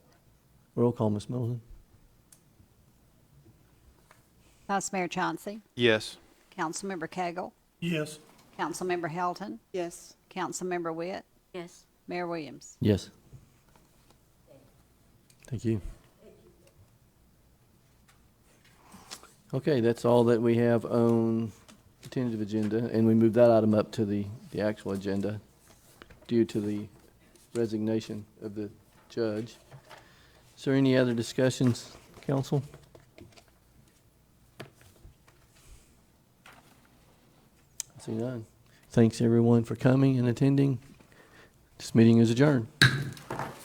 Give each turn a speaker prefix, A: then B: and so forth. A: Roll call, Ms. Middleton.
B: Vice Mayor Chauncey,
C: Yes.
B: Councilmember Cagle,
D: Yes.
B: Councilmember Helton,
E: Yes.
B: Councilmember Witt,
E: Yes.
B: Mayor Williams.
A: Yes. Thank you. Okay, that's all that we have on the tentative agenda, and we move that item up to the, the actual agenda due to the resignation of the judge. Is there any other discussions, council? I see none. Thanks, everyone, for coming and attending. This meeting is adjourned.